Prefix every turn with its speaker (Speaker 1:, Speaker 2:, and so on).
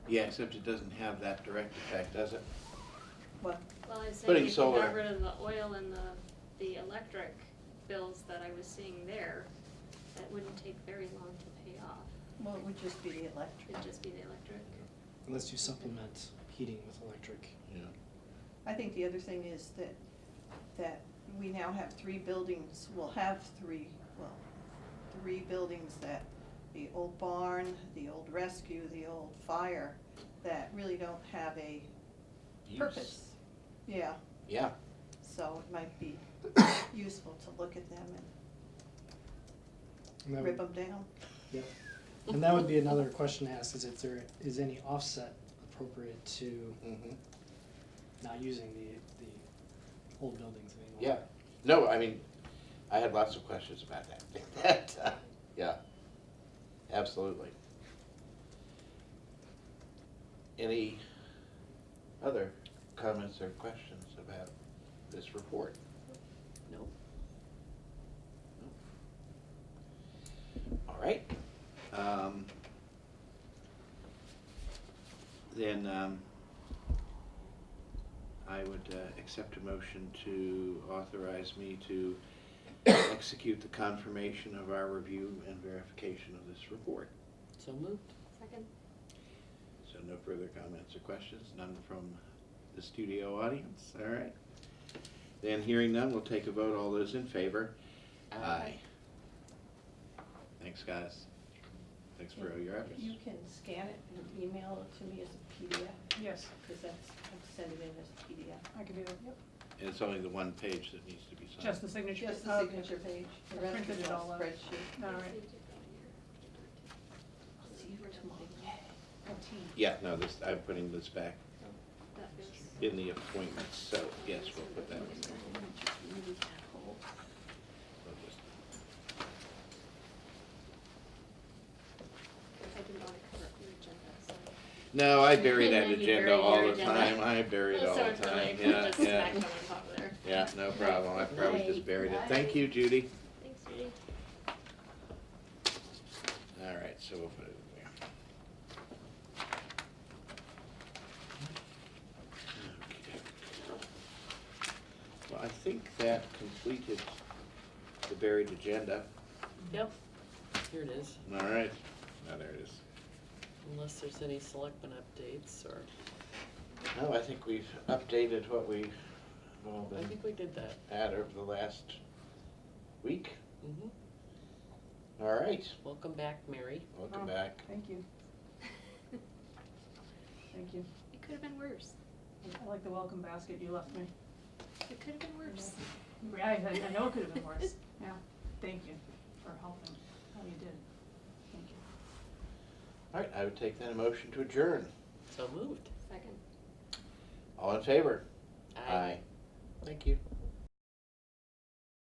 Speaker 1: Yeah, except it doesn't have that direct effect, does it?
Speaker 2: What?
Speaker 3: Well, I was saying
Speaker 1: Putting
Speaker 3: if you
Speaker 1: solar-
Speaker 3: got rid of the oil and the, the electric bills that I was seeing there, that wouldn't take very long to pay off.
Speaker 2: Well, it would just be the electric.
Speaker 3: It'd just be the electric.
Speaker 4: Unless you supplement heating with electric.
Speaker 1: Yeah.
Speaker 2: I think the other thing is that, that we now have three buildings, we'll have three, well, three buildings that, the old barn, the old rescue, the old fire, that really don't have a purpose. Yeah,
Speaker 1: Yeah,
Speaker 2: so it might be useful to look at them
Speaker 4: And that
Speaker 2: and
Speaker 4: would-
Speaker 2: rip them down.
Speaker 4: Yep. And that would be another question to ask is if there is any offset appropriate to
Speaker 1: mhm.
Speaker 4: not using the, the old buildings anymore.
Speaker 1: yeah. No, I mean, I had lots of questions about that. that. uh, Yeah, absolutely. Any other comments or questions about this report?
Speaker 5: No.
Speaker 1: All right. Um, Then um, I would uh, accept a motion to authorize me to execute the confirmation of our review and verification of this report.
Speaker 5: So moved.
Speaker 3: Second?
Speaker 1: So no further comments or questions, none from the studio audience, all right? Then hearing none, we'll take a vote, all those in favor? Aye. Thanks, guys. Thanks for all your efforts.
Speaker 2: You can scan it and email it to me as a PDF,
Speaker 6: Yes,
Speaker 2: because that's, I'm sending it in as a
Speaker 6: I could do that, yep.
Speaker 1: And it's only the one page that needs to be signed.
Speaker 6: Just the
Speaker 2: PDF.
Speaker 6: signature.
Speaker 2: Just the
Speaker 6: Okay.
Speaker 2: signature page, the
Speaker 6: I
Speaker 2: rest
Speaker 6: uh, printed
Speaker 2: is
Speaker 6: it
Speaker 2: all
Speaker 6: all out.
Speaker 2: spreadsheet.
Speaker 6: All right.
Speaker 2: See you tomorrow.
Speaker 1: Yeah, no, this, I'm putting this back
Speaker 3: That feels.
Speaker 1: in the appointments, so yes, we'll put that one there. We'll just-
Speaker 3: I didn't want to cover up your agenda, so.
Speaker 1: No, I bury that
Speaker 3: You bury
Speaker 1: agenda all
Speaker 3: your
Speaker 1: the
Speaker 3: agenda.
Speaker 1: time, I bury it all
Speaker 3: So
Speaker 1: the
Speaker 3: it's really
Speaker 1: time, yeah,
Speaker 3: just smack
Speaker 1: yeah.
Speaker 3: them on top there.
Speaker 1: Yeah, no problem, I probably just buried it. Thank you, Judy.
Speaker 3: Thanks, Judy.
Speaker 1: All right, so we'll put it there. Well, I think that completed the buried agenda.
Speaker 5: Yep. Here it is,
Speaker 1: All right, now there it is.
Speaker 5: unless there's any selectmen updates or,
Speaker 1: No, Oh, I think we've updated what we, well,
Speaker 5: I think we did that.
Speaker 1: had over the last week.
Speaker 5: hmm
Speaker 1: All right,
Speaker 5: Welcome back, Mary.
Speaker 1: welcome back.
Speaker 6: Thank you, thank you.
Speaker 3: It could have been worse.
Speaker 6: I like the welcome basket you left me.
Speaker 3: It could have been worse.
Speaker 6: Yeah, I, I know it could have been worse, yeah. Thank you for helping, how you did. Thank you.
Speaker 1: All right, I would take that a motion to adjourn.
Speaker 5: So moved.
Speaker 3: Second.
Speaker 1: All in favor?
Speaker 5: Aye.
Speaker 1: Thank you.